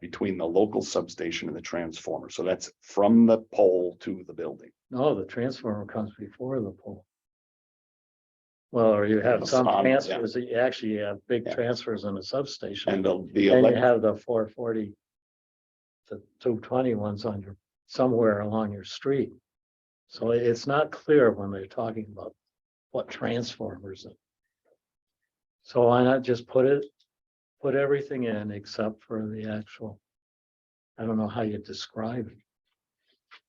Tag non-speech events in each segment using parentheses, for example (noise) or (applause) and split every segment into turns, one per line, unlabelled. between the local substation and the transformer. So that's from the pole to the building.
No, the transformer comes before the pole. Well, or you
The
have some
sun, yeah.
transfers, that you actually have big
Yeah.
transfers in a substation.
And
And
the, the,
you
elec-
have the four forty. The two twenty ones on your, somewhere along your street. So it- it's not clear when they're talking about what transformers. it- So why not just put it, put everything in except for the actual. I don't know how you describe it.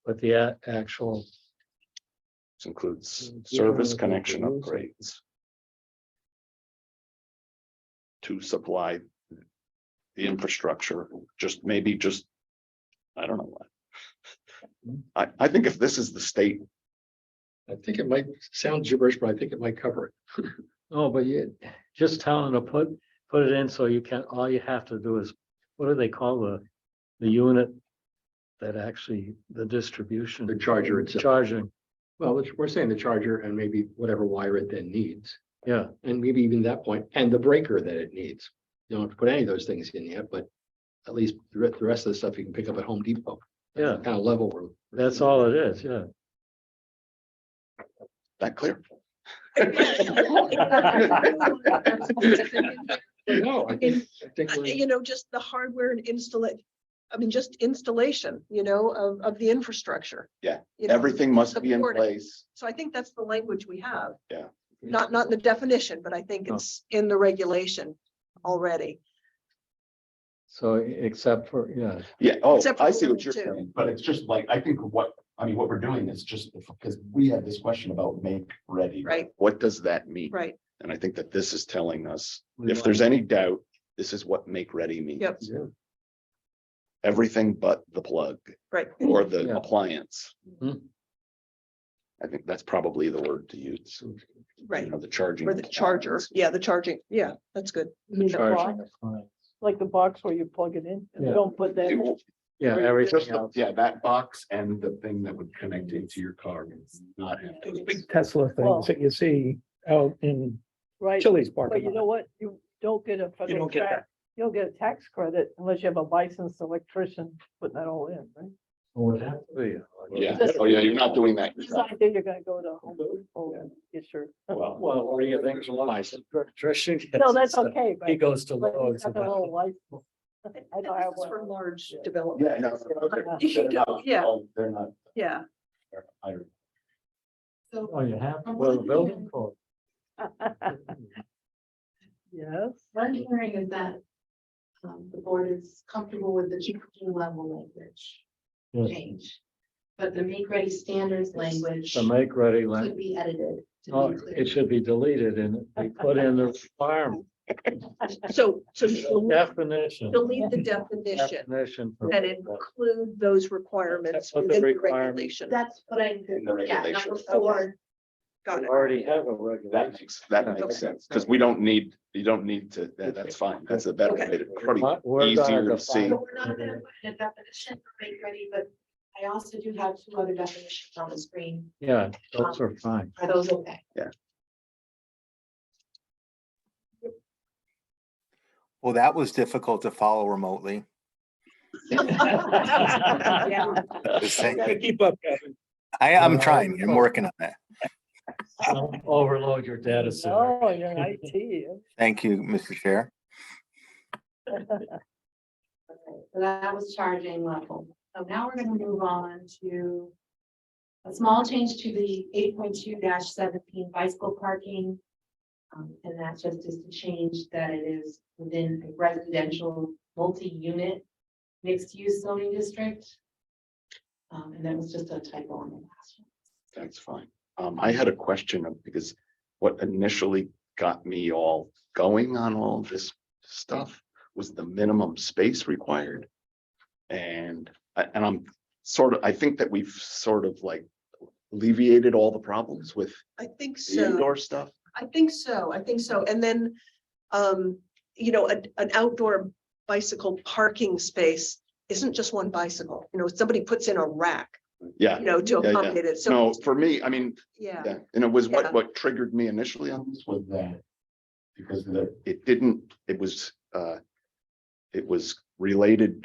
But the a- actual
this includes
Yeah,
service
I think
connection
it is.
upgrades. To supply the infrastructure, just maybe just, I don't know. what. I, I think if this is the state
I think it might sound gibberish, but I think it might cover it. (laughs)
No, but you, just tell them to put, put it in so you can, all you have to do is, what do they call the, the unit? That actually, the distribution.
The charger itself.
Charging,
Well, it's- we're saying the charger and maybe whatever wire it then needs,
yeah,
and maybe even that point, and the breaker that it needs. You don't have to put any of those things in yet, but at least the re- the rest of the stuff you can pick up at Home Depot.
yeah,
Kind of level we're.
that's
(laughs)
all it is, yeah.
that clear. (laughs)
No, I think, I think we're-
You know, just the hardware and install it, I mean, just installation, you know, of, of the infrastructure.
Yeah,
You know,
Everything must be in
support it.
place.
So I think that's the language we have.
Yeah.
Not, not in the definition, but I think
No.
it's in the regulation already.
So except for, yeah,
Yeah, oh,
Except for
I
the
see what
women
you're
too.
saying.
But it's just like, I think what, I mean, what we're doing is just because we had this question about make ready.
Right,
What does that mean?
right.
And I think that this is telling us,
We
if there's any doubt, this is what make ready means.
Yep.
Yeah.
Everything but the plug
Right.
or the
Yeah.
appliance.
Hmm.
Mhm.
I think that's probably the word to use, you
Right.
know, the charging.
Or the charger.
appliance.
Yeah, the charging. Yeah, that's good.
charging is fine.
Like the box where you plug it in,
Yeah.
and don't put that,
It
in.
will-
Yeah,
Just,
everything
the-
else,
yeah, that box and the thing that would connect into your car. It's Not
Those
big
Tesla
Well-
things that you see out in
right?
Chili's
But you
parking
know
lot.
what? You don't get a. federal
don't get
tax- You don't get a tax credit unless you have a licensed electrician putting that all in, right?
would have to be.
Yeah,
Just-
oh yeah, you're not doing that.
It's not like you're gonna go to Home Depot and get your,
Well, what do you think? Electrician.
no, that's okay, but.
He goes to
but you
Lowe's.
got the little license.
(laughs)
I
And
don't have
this is For
one.
large
Yeah.
development.
Yeah. no, they're not-
You
they're
can go,
not-
yeah.
oh, They're not.
Yeah.
they're hired.
Oh, you have, to- well, building code.
(laughs) Yes.
What I'm hearing is that um, the board is comfortable with the GPP level language
Yes.
change. But the make ready standards language
The make ready language.
could be edited to
Oh,
be clear.
it should be deleted and we put in the
(laughs)
farm
So, so delete
definition.
delete the definition
Definition. for-
and include those requirements
That's what the
within the
requirement-
regulation.
That's what I,
In the
yeah, number
regulations.
four,
Got
We
it.
Already have a
That
regulation.
makes, that
Okay.
makes sense, because we don't need, you don't need to, that- that's fine. That's a better way to. probably-
What we're gonna
easier to
define-
see.
so we're not gonna put in a definition for make ready, but I also do have two other definitions on the screen.
Yeah, those are
(laughs)
fine.
Are those okay?
Well, that was difficult to follow
(laughs)
remotely.
Yeah.
Just saying.
Gotta keep up, Kevin.
I
Yeah.
am trying. I'm working on that.
Don't Overload your data center.
Oh, you're IT.
Thank you, Mr. Chair.
Okay, So that was charging level. So now we're gonna move on to a small change to the eight point two seventeen bicycle parking. Um, and that's just is to change that it is within a residential multi-unit mixed-use zoning district. Um, and that was just a typo on the last one.
That's fine. Um, I had a question of, because what initially got me all going on all of this stuff was the minimum space required. And, I- and I'm sort of, I think that we've sort of like alleviated all the problems with
I think
the
so.
indoor stuff.
I think so. I think so. And then, um, you know, an, an outdoor bicycle parking space isn't just one bicycle. You know, somebody puts in a rack,
Yeah,
you know, to
Yeah, yeah.
accommodate it. So,
no, for me, I mean,
yeah,
yeah, and it was
Yeah.
what, what triggered me initially on
Comes with that. Because the,
it didn't, it was, uh, it was related